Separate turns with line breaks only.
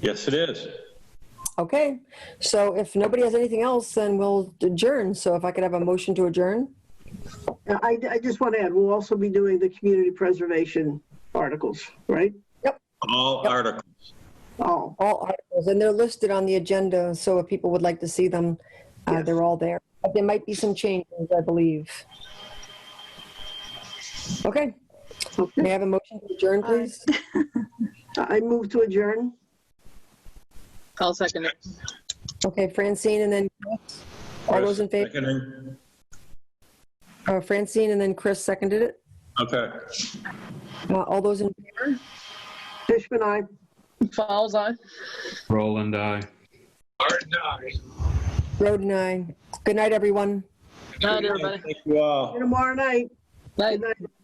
Yes, it is.
Okay, so if nobody has anything else, then we'll adjourn. So if I could have a motion to adjourn?
Now, I, I just want to add, we'll also be doing the community preservation articles, right?
All articles.
All,
All articles, and they're listed on the agenda, so if people would like to see them, uh,
Yes.
they're all there. But there might be some changes, I believe. Okay, may I
okay. Uh,
have a motion to adjourn, please?
I move to adjourn.
I'll second it.
Okay, Francine and then, all those in favor,
Seconding.
uh, Francine and then Chris seconded it.
Okay.
Uh, All those in favor?
Fishman, I.
Falls on.
Roland, I.
Roden, aye. Good night, everyone.
Night, everybody.
Thank you all.
Tomorrow night.
Night.
Good night.